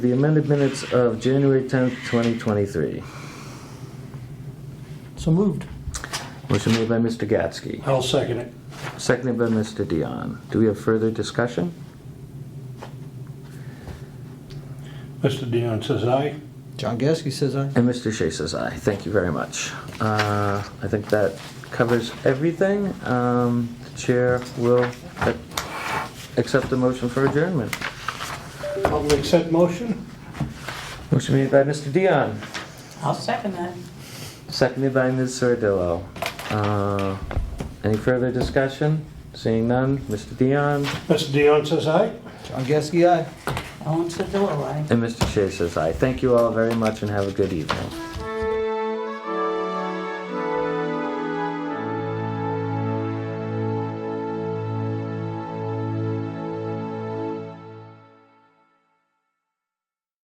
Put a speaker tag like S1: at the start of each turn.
S1: The amended minutes of January 10th, 2023.
S2: So moved.
S1: Motion made by Mr. Gatsky,
S2: I'll second it.
S1: seconded by Mr. Dion. Do we have further discussion?
S2: Mr. Dion says aye.
S3: John Gasky says aye.
S1: And Mr. Shea says aye. Thank you very much. Uh, I think that covers everything. Um, The chair will ac- accept the motion for adjournment.
S2: I'll make said motion.
S1: Motion made by Mr. Dion,
S4: I'll second that.
S1: seconded by Ms. Sardillo. Uh, Any further discussion? Seeing none, Mr. Dion
S2: Mr. Dion says aye.
S3: John Gasky aye.
S4: Ellen Sedillo, aye.
S1: and Mr. Shea says aye. Thank you all very much and have a good evening.